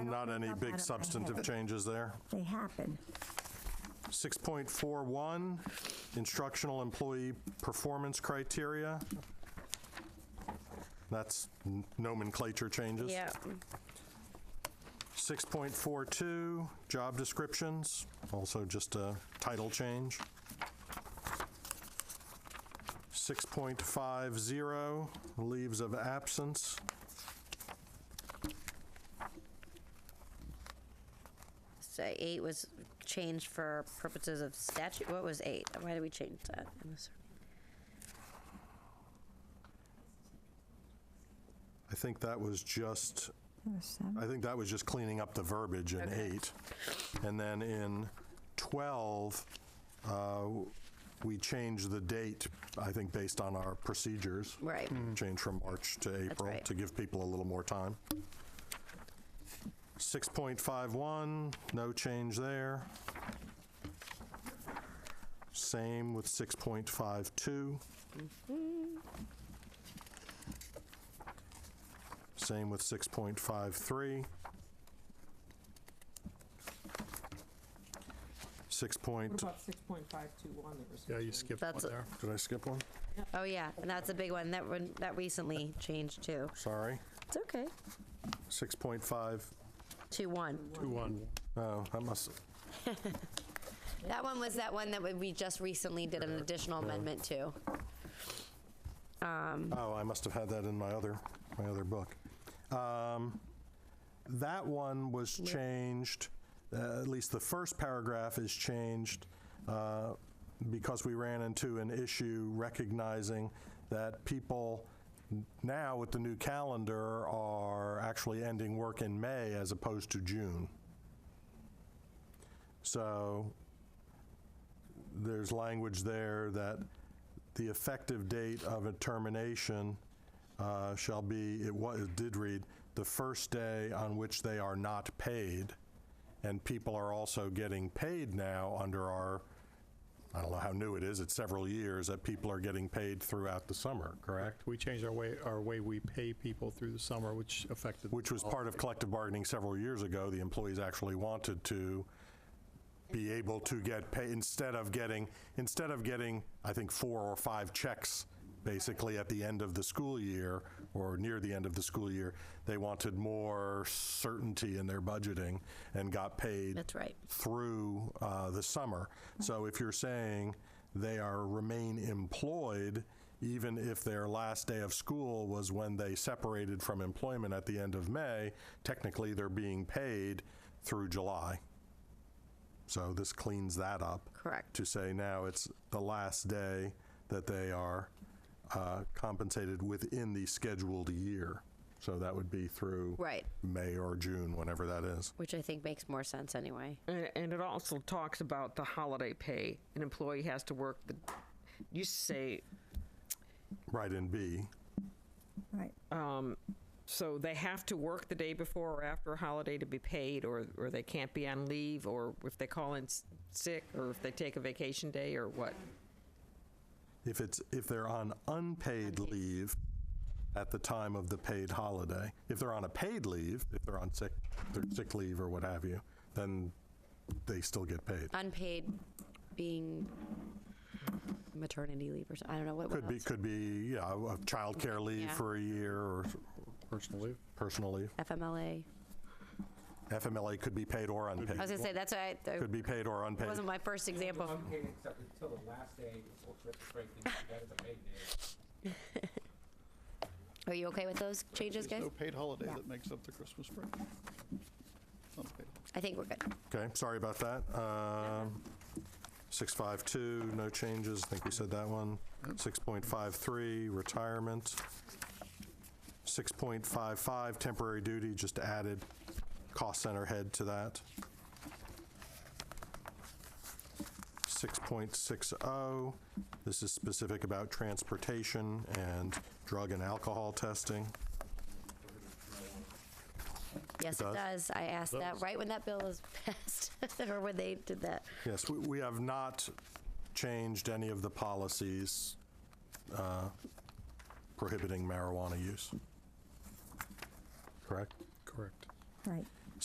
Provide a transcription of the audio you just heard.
not any up out of my big head. substantive changes there. They happen. 6.41, instructional employee performance criteria. That's n- nomenclature changes. Yeah. 6.42, job descriptions, also just a title change. 6.50, leaves of absence. So eight was changed for purposes of statute. What was eight? Why did we change that? I'm sorry. I think that was just, Number seven. I think that was just cleaning up the verbiage in eight. And then in 12, uh, we changed the date, I think, based on our procedures. Right. Change from March to April right. to give people a little more time. 6.51, no change there. Same with 6.52. Same with 6.53. 6. What point- about 6.521, there was? Yeah, you skipped one That's a- there. Did I skip one? Oh yeah, and that's a big one that one that recently changed too. Sorry. It's okay. 6.5, Two one. Two, one. oh, that must, That one was that one that we- we just recently did an additional amendment to. Oh, I must have had that in my other, my other book. Um, That one was changed, uh, at least the first paragraph is changed, uh, because we ran into an issue recognizing that people n- now with the new calendar are actually ending work in May as opposed to June. So there's language there that the effective date of a termination uh, shall be, it wa it did read, the first day on which they are not paid. And people are also getting paid now under our, I don't know how new it is, it's several years, that people are getting paid throughout the summer, correct? We changed our way, our way we pay people through the summer, which affected. Which was part of collective bargaining several years ago. The employees actually wanted to be able to get paid, instead of getting, instead of getting, I think, four or five checks, basically, at the end of the school year, or near the end of the school year, they wanted more certainty in their budgeting and got paid That's right. through uh, the summer. So if you're saying they are remain employed, even if their last day of school was when they separated from employment at the end of May, technically they're being paid through July. So this cleans that up. Correct. To say now it's the last day that they are uh, compensated within the scheduled year. So that would be through Right. May or June, whenever that is. Which I think makes more sense anyway. And, and it also talks about the holiday pay. An employee has to work the, you say, Right in B. Right. so they have to work the day before or after a holiday to be paid, or, or they can't be on leave, or if they call in s- sick, or if they take a vacation day, or what? If it's, if they're on unpaid leave at the time of the paid holiday, if they're on a paid leave, if they're on sick, their sick leave or what have you, then they still get paid. Uh, Unpaid being maternity leave or something. I don't know what what Could be, else? could be, yeah, a- a childcare leave Yeah. for a year or Personal leave. personal leave. FMLA. FMLA could be paid or unpaid. I was gonna say that's why I, Could be paid or unpaid. wasn't my first example. Unpaid except until the last day before Christmas break, then you get a paid day. Are you okay with those changes, There's guys? no paid holiday that makes up the Christmas break. Unpaid. I think we're good. Okay, sorry about that. Um, 652, no changes, I think we said that one. 6.53, retirement. 6.55, temporary duty, just added cost center head to that. 6.60, oh, this is specific about transportation and drug and alcohol testing. Yes, it does? does. I asked that right when that bill was passed, or when they did that. Yes, we, we have not changed any of the policies uh, prohibiting marijuana use. Correct? Correct. Right.